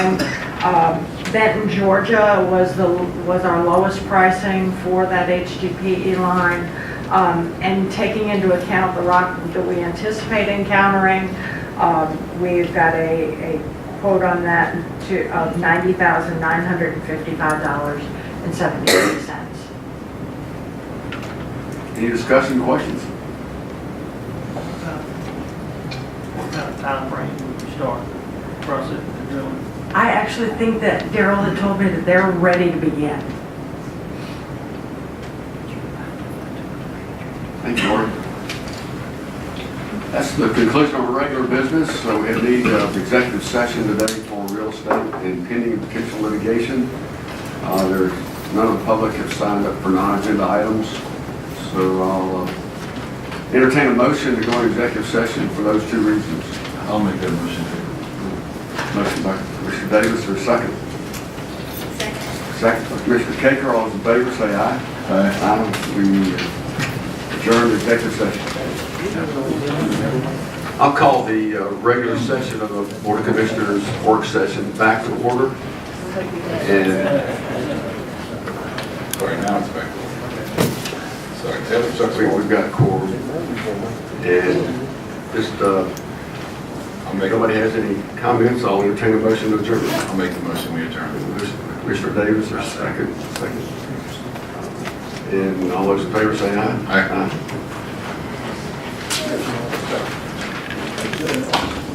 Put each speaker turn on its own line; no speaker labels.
Um, Benton, Georgia was the, was our lowest pricing for that HDPE line. Um, And taking into account the rock that we anticipate encountering, um, we've got a, a quote on that to, of $90,955.73.
Any discussion, questions?
What kind of timeframe would you start the process of drilling?
I actually think that Daryl had told me that they're ready to begin.
Thank you, Lori. That's the conclusion of our regular business, so we have need of executive session today for real estate and pending potential litigation. Uh, There's none of the public have signed up for non-agenda items, so I'll uh, entertain a motion to go into executive session for those two reasons.
I'll make that motion.
Motion by Commissioner Davis, or second? Second. Second by Commissioner Caker, all those in favor say aye.
Aye.
Aye. We uh, adjourn the executive session. I'll call the uh, regular session of the Board of Commissioners work session back to order. And
Sorry, now it's back. Sorry, tell them
we-
something.
we've got a quorum. And just, uh,
I'll
if
make,
nobody has any comments, I'll entertain a motion to adjourn.
I'll make the motion, we adjourn.
Commissioner Davis, there's second, second. And all those in favor say aye.
Aye.
Aye.